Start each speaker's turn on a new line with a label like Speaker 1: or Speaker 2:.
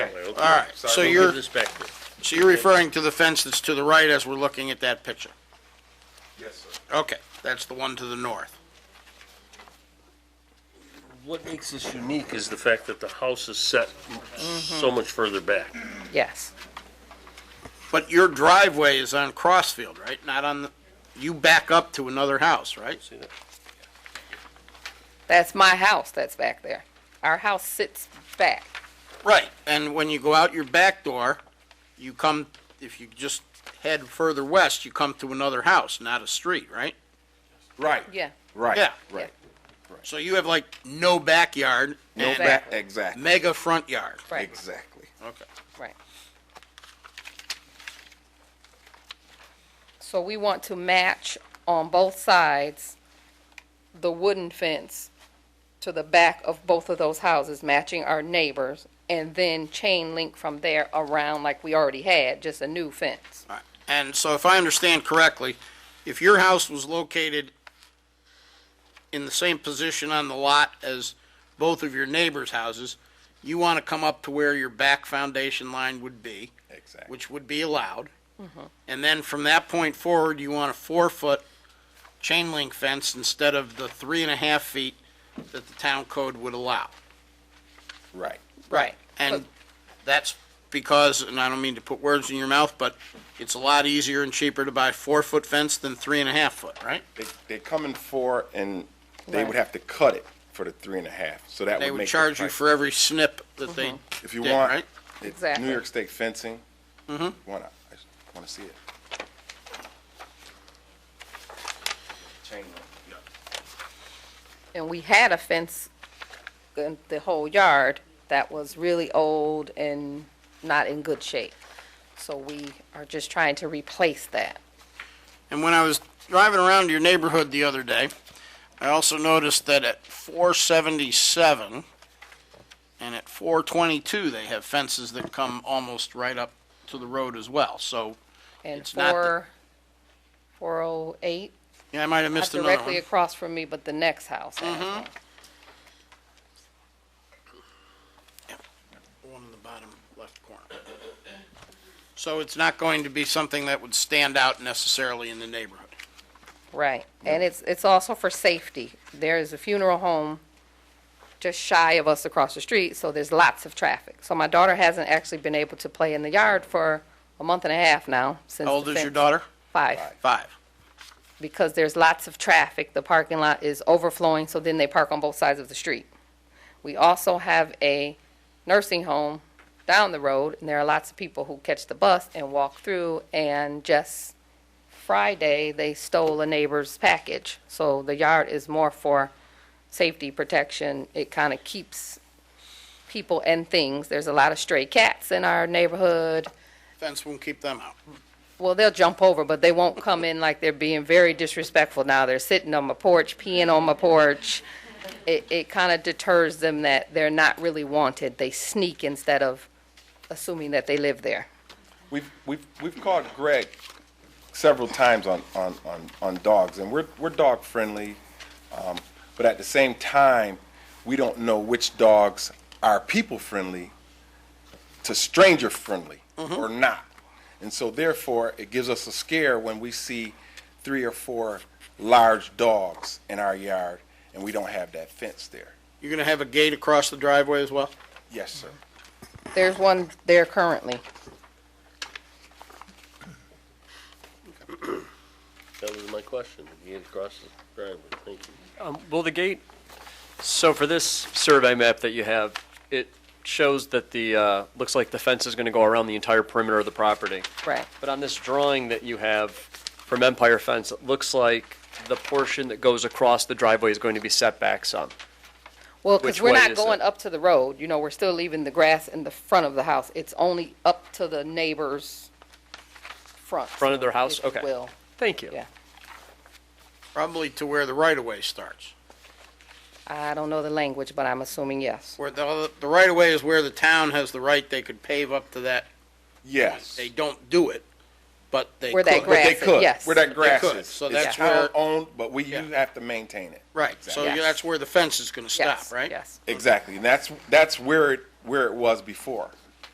Speaker 1: All right,
Speaker 2: I
Speaker 1: so
Speaker 2: will
Speaker 1: you're,
Speaker 2: give this back to you.
Speaker 1: so you're referring to the fence that's to the right as we're looking at that picture?
Speaker 2: Yes, sir.
Speaker 1: Okay, that's the one to the north.
Speaker 2: What makes this unique is the fact that the house is set
Speaker 1: Mm-hmm.
Speaker 2: so much further back.
Speaker 3: Yes.
Speaker 1: But your driveway is on Crossfield, right? Not on, the. you back up to another house, right?
Speaker 2: See that?
Speaker 3: That's my house that's back there. Our house sits back.
Speaker 1: Right, and when you go out your back door, you come, if you just head further west, you come to another house, not a street, right?
Speaker 4: Right,
Speaker 3: Yeah.
Speaker 4: right,
Speaker 1: Yeah.
Speaker 4: right.
Speaker 1: So you have like no backyard
Speaker 4: No
Speaker 1: and
Speaker 4: back,
Speaker 3: Exactly.
Speaker 4: exactly,
Speaker 1: mega front yard.
Speaker 3: Right.
Speaker 4: exactly.
Speaker 1: Okay.
Speaker 3: Right. So we want to match on both sides the wooden fence to the back of both of those houses, matching our neighbors, and then chain link from there around like we already had, just a new fence.
Speaker 1: All right. And so if I understand correctly, if your house was located in the same position on the lot as both of your neighbors' houses, you want to come up to where your back foundation line would be.
Speaker 4: Exactly.
Speaker 1: Which would be allowed. And then from that point forward, you want a four-foot chain link fence instead of the three and a half feet that the town code would allow.
Speaker 4: Right.
Speaker 3: Right.
Speaker 1: And that's because, and I don't mean to put words in your mouth, but it's a lot easier and cheaper to buy four-foot fence than three and a half foot, right?
Speaker 4: They, they come in four and they
Speaker 3: Right.
Speaker 4: would have to cut it for the three and a half, so that would make. Mm-hmm.
Speaker 1: They would
Speaker 4: the
Speaker 1: charge you
Speaker 4: price-
Speaker 1: for every snip that they
Speaker 4: If you
Speaker 1: did,
Speaker 4: want.
Speaker 1: right?
Speaker 4: it's
Speaker 3: Exactly.
Speaker 4: New York State fencing. Mm-hmm. Wanna, I just wanna see it. Chain link, yeah.
Speaker 3: And we had a fence in the whole yard that was really old and not in good shape. So we are just trying to replace that.
Speaker 1: And when I was driving around your neighborhood the other day, I also noticed that at 477 and at 422, they have fences that come almost right up to the road as well. So,
Speaker 3: And
Speaker 1: It's not the-
Speaker 3: four, four oh eight,
Speaker 1: yeah, I might have
Speaker 3: not
Speaker 1: missed another
Speaker 3: directly
Speaker 1: one. Mm-hmm.
Speaker 3: across from me, but the next house has one.
Speaker 1: One in the bottom left corner. So it's not going to be something that would stand out necessarily in the neighborhood.
Speaker 3: Right, and it's, it's also for safety. There is a funeral home just shy of us across the street, so there's lots of traffic. So my daughter hasn't actually been able to play in the yard for a month and a half now, since.
Speaker 1: How old
Speaker 3: the
Speaker 1: is your
Speaker 3: fence-
Speaker 1: daughter?
Speaker 3: Five.
Speaker 1: Five.
Speaker 3: because there's lots of traffic, the parking lot is overflowing, so then they park on both sides of the street. We also have a nursing home down the road, and there are lots of people who catch the bus and walk through, and just Friday, they stole a neighbor's package. So the yard is more for safety protection. It kind of keeps people and things. There's a lot of stray cats in our neighborhood.
Speaker 1: Fence won't keep them out.
Speaker 3: Well, they'll jump over, but they won't come in like they're being very disrespectful now. They're sitting on my porch, peeing on my porch. It, it kind of deters them that they're not really wanted. They sneak instead of assuming that they live there.
Speaker 4: We've, we've, we've called Greg several times on, on, on, on dogs, and we're, we're dog friendly. um, But at the same time, we don't know which dogs are people friendly to stranger friendly or not. And so therefore, it gives us a scare when we see three or four large dogs in our yard and we don't have that fence there.
Speaker 1: You're going to have a gate across the driveway as well?
Speaker 4: Yes, sir.
Speaker 3: There's one there currently.
Speaker 2: That was my question. You get across the driveway. Thank you.
Speaker 5: Um, Will the gate, so for this survey map that you have, it shows that the, uh, looks like the fence is going to go around the entire perimeter of the property.
Speaker 3: Right.
Speaker 5: But on this drawing that you have from Empire Fence, it looks like the portion that goes across the driveway is going to be set back some.
Speaker 3: Well, because
Speaker 5: Which
Speaker 3: we're
Speaker 5: way
Speaker 3: not
Speaker 5: is
Speaker 3: going
Speaker 5: it?
Speaker 3: up to the road, you know, we're still leaving the grass in the front of the house. It's only up to the neighbor's front.
Speaker 5: Front of their house?
Speaker 3: if you
Speaker 5: Okay.
Speaker 3: will.
Speaker 5: Thank you.
Speaker 3: Yeah.
Speaker 1: Probably to where the right-of-way starts.
Speaker 3: I don't know the language, but I'm assuming yes.
Speaker 1: Where the, the right-of-way is where the town has the right, they could pave up to that.
Speaker 4: Yes.
Speaker 1: They don't do it, but they
Speaker 3: Where that
Speaker 1: could.
Speaker 3: gra-
Speaker 4: But they
Speaker 3: Grass,
Speaker 4: could.
Speaker 3: yes.
Speaker 4: Where that grass
Speaker 1: could.
Speaker 4: is.
Speaker 1: So
Speaker 4: It's
Speaker 1: that's
Speaker 4: our
Speaker 1: where-
Speaker 4: Owned, but we, you
Speaker 1: Yeah.
Speaker 4: have to maintain it.
Speaker 1: Right, so
Speaker 3: Yes.
Speaker 1: that's where the fence is going to
Speaker 3: Yes,
Speaker 1: stop, right?
Speaker 3: Yes.
Speaker 4: Exactly, and that's, that's where it, where it was before.